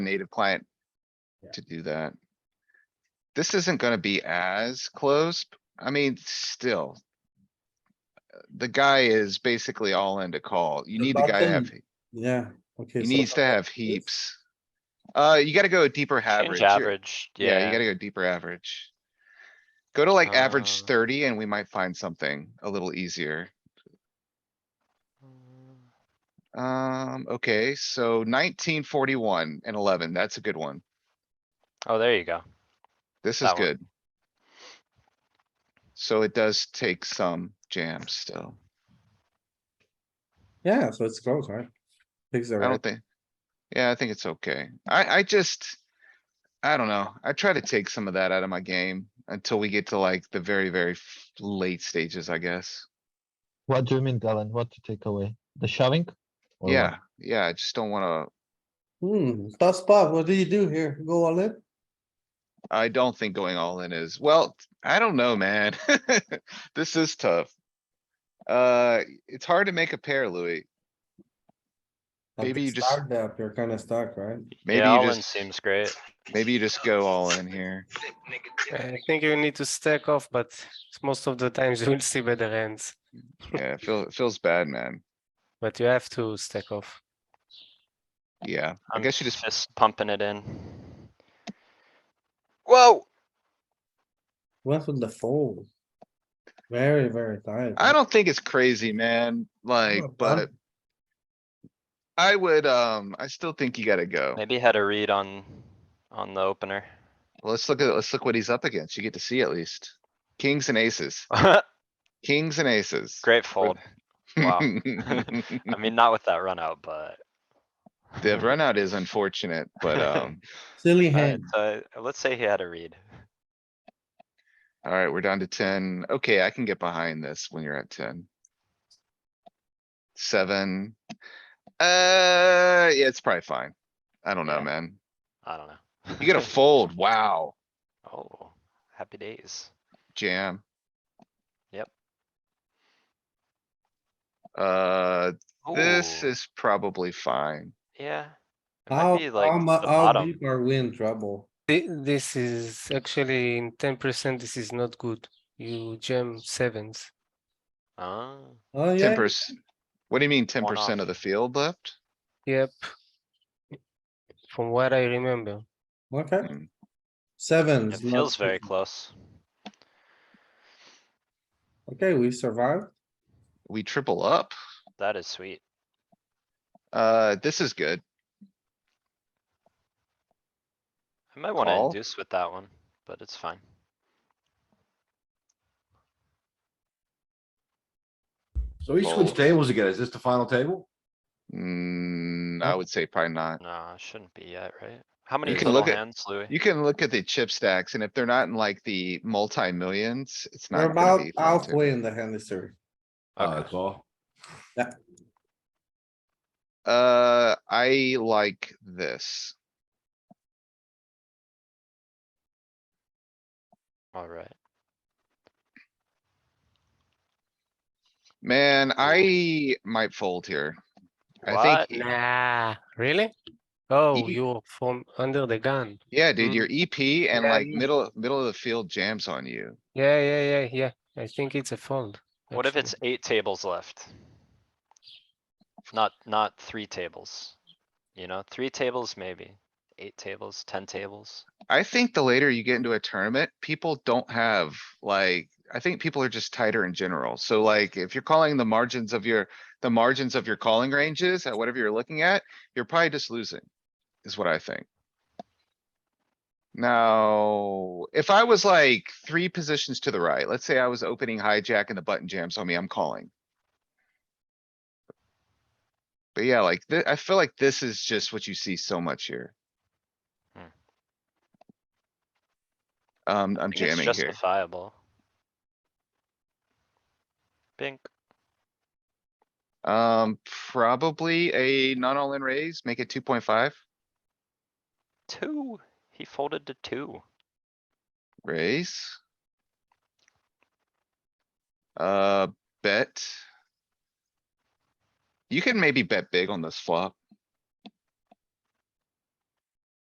native client Yeah. to do that. This isn't gonna be as close. I mean, still. uh, The guy is basically all in to call. You The need the guy to have, button- Yeah, okay. he so needs to have heaps. Uh, you gotta go deeper average. Change You're- average, Yeah, you yeah. gotta go deeper average. Go to like average Uh. thirty and we might find something a little easier. Mm, Um, okay, so nineteen forty-one and eleven, that's a good one. Oh, there you go. This is That one. good. So it does take some jams still. Yeah, so it's close, right? Picks the I don't right, think. Yeah, I think it's okay. I, I just. I don't know. I try to take some of that out of my game until we get to like the very, very f- late stages, I guess. What do you mean, Galen? What to take away? The shoving? Or what? Yeah, yeah, I just don't wanna, hmm, tough spot, what do you do here? Go all in? I don't think going all in is, well, I don't know, man. This is tough. Uh, it's hard to make a pair, Louis. At Maybe the you just- start depth, You're kinda stuck, right? Maybe Yeah, you all in just, seems great. maybe you just go all in here. I think you need to stack off, but most of the times you will see better hands, Yeah, it feels, it feels bad, man. but you have to stack off. Yeah, I I'm guess you just, Just pumping it in. Whoa, What's with the fold? Very, very tight. I don't think it's crazy, man, like, not bad. but. I would, um, I still think you gotta go. maybe had a read on, on the opener. Let's look at, let's look what he's up against. You get to see at least. Kings and aces, kings and aces. Great fold. wow. I The mean, not with that run out, but. uh, run out is unfortunate, but, um, Silly Alright, hand, so uh, let's say he had a read. alright, we're down to ten. Okay, I can get behind this when you're at ten. Seven. Uh, yeah, it's probably fine. I don't know, Yeah. man. I don't know. You gotta fold. Wow, Oh, happy days. jam. Yep. Uh, this Ooh, is probably fine. Yeah. It might how, be, like, how the mu- how bottom. deep are we in trouble? Thi- This is actually in ten percent, this is not good. You jam sevens. Ah, Oh, Ten yeah, percent. What do you mean ten One percent off. of the field left? Yep. From what I remember, okay, Mm, sevens. it not feels very good. close. Okay, we survived. We triple up. That is sweet. Uh, this is good. I might wanna Call. induce with that one, but it's fine. So he switched Fold. tables again. Is this the final table? Mm, I would say probably not. No, it shouldn't be yet, right? How many can little look at- hands, Louis? You can look at the chip stacks and if they're not in like the multi-millions, it's We're not gonna about be. fun to- halfway in the hand history. Uh, Okay, that's all. Uh, I like this. alright. Man, I might fold here. I What? think, nah, really? Oh, Ye- you're from under the gun. yeah, dude, Mm. your EP and Yeah, like you- middle, middle of the field jams on you. Yeah, yeah, yeah, yeah. I think it's a fold. What if actually. it's eight tables left? Not, not three tables. You know, three tables maybe, eight tables, ten tables. I think the later you get into a tournament, people don't have like, I think people are just tighter in general. So like, if you're calling the margins of your, the margins of your calling ranges at whatever you're looking at, you're probably just losing, is what I think. Now, if I was like three positions to the right, let's say I was opening hijack and the button jams on me, I'm calling. But yeah, like, thi- I feel like this is just what you see so much here. Hmm. Um, I'm I think it's jamming here. justifiable. Bink, Um, probably a not all in raise, make it two point five, two, he folded to two. raise. Uh, bet. You can maybe bet big on this flop.